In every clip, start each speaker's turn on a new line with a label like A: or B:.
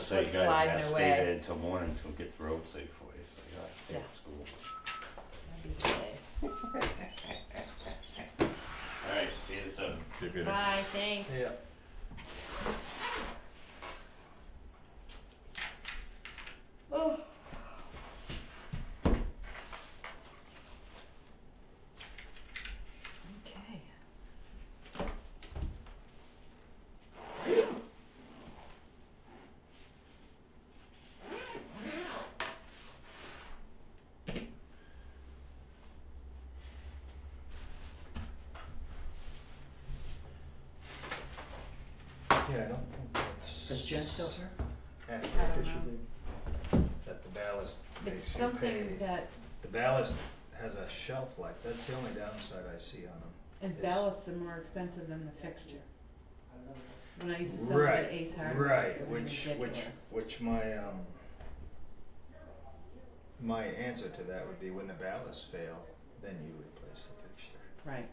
A: so you
B: like
A: guys gotta
B: sliding
A: stay
B: away.
A: there until morning to get the road safe for you, so you gotta stay
B: Yeah.
A: at school.
B: That'd be good.
A: Alright, see you soon.
C: See you later.
B: Bye, thanks.
D: Yeah.
B: Okay.
D: Yeah, I don't think that's.
E: Is Jen still here?
D: accurate.
B: I don't
D: That should
B: know.
D: be- That the ballast
B: It's
D: makes you
B: something
D: pay.
B: that
D: The ballast has a shelf life, that's the only downside I see on them.
B: and
D: It's-
B: ballasts are more expensive than the fixture. When I used to sell it at Ace Hardware,
D: Right,
B: it was
D: which, which,
B: ridiculous.
D: which my, um, my answer to that would be when the ballasts fail, then you replace the fixture.
B: Right.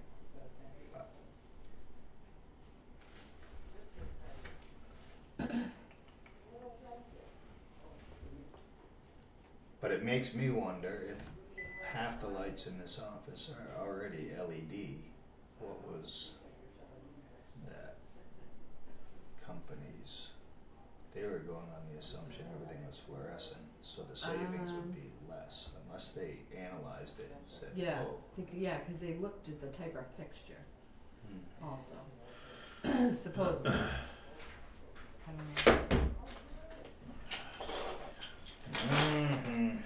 D: But it makes me wonder if half the lights in this office are already LED, what was that company's? They were going on the assumption everything was fluorescent, so the savings
B: Um.
D: would be less unless they analyzed it and said,
B: Yeah,
D: oh.
B: think, yeah, cause they looked at the type of fixture
D: hmm.
B: also, supposedly. I don't know.
D: Mm-hmm.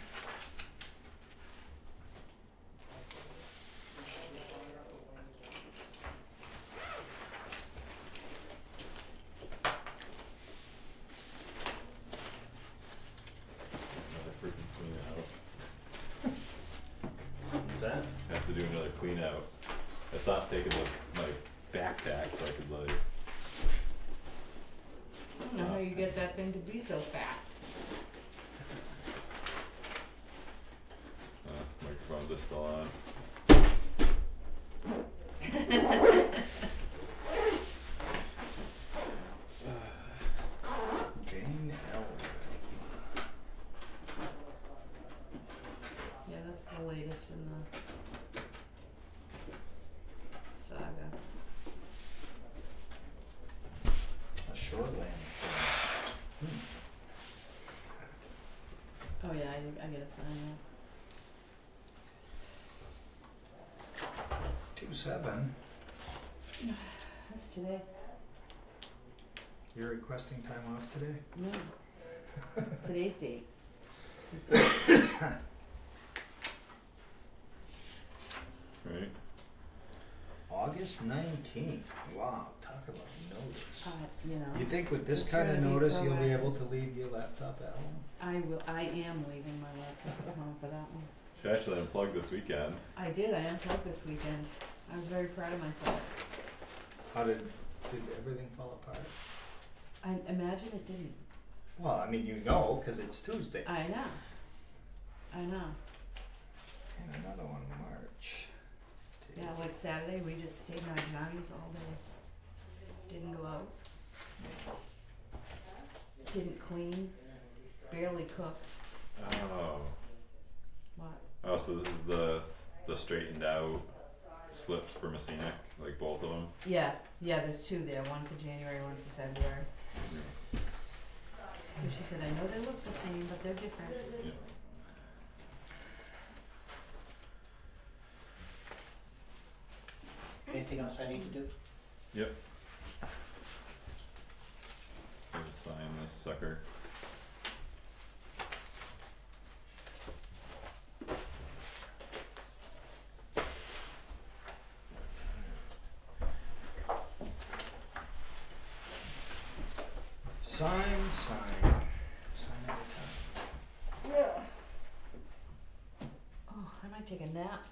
C: Another freaking clean out.
D: What's that?
C: Have to do another clean out. I stopped taking the, my backpack so I could like,
B: I don't know how you get that thing to be so fat.
C: uh, microphones are still on.
D: Dane Elder.
B: Yeah, that's the latest in the saga.
D: A shoreland.
B: Oh yeah, I, I gotta sign that.
D: Two seven.
B: That's today.
D: You're requesting time off today?
B: No. Today's date. It's-
C: Right?
D: August nineteenth. Wow, talk about notice.
B: uh, you know,
D: You think with this
B: Just
D: kind
B: trying
D: of
B: to be
D: notice, you'll be
B: proactive.
D: able to leave your laptop at home?
B: I will. I am leaving my laptop at home for that one.
C: Should actually unplug this weekend.
B: I did. I unplugged this weekend. I was very proud of myself.
D: How did, did everything fall apart?
B: I imagine it didn't.
D: Well, I mean, you know, cause it's Tuesday.
B: I know. I know.
D: And another one, March.
B: Yeah, like Saturday, we just stayed in our jammies all day. Didn't go out. Didn't clean. Barely cooked.
C: Oh.
B: What?
C: Oh, so this is the, the straightened out slips for Messina, like both of them?
B: Yeah, yeah, there's two there, one for January, one for February. So she said, I know they look the same, but they're different.
C: Yeah.
E: Anything else I need to do?
C: Gonna sign this sucker.
D: Sign, sign, sign at a
B: Oh, I might take a nap.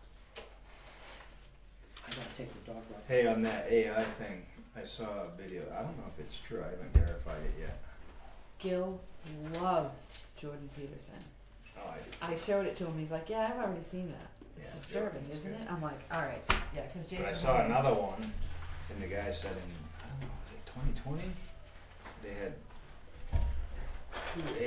E: I gotta take the dog out.
D: time. Hey, on that AI thing, I saw a video, I don't know if it's true, I haven't verified it yet.
B: Gil loves Jordan Peterson.
D: Oh, I
B: I showed it to him, he's like, yeah, I've already seen that. It's
D: Yeah,
B: disturbing,
D: Jordan's
B: isn't
D: good.
B: it? I'm like, alright, yeah, cause Jason.
D: But I saw
B: Horner-
D: another one, and the guy said in I don't know, was it 2020? They had a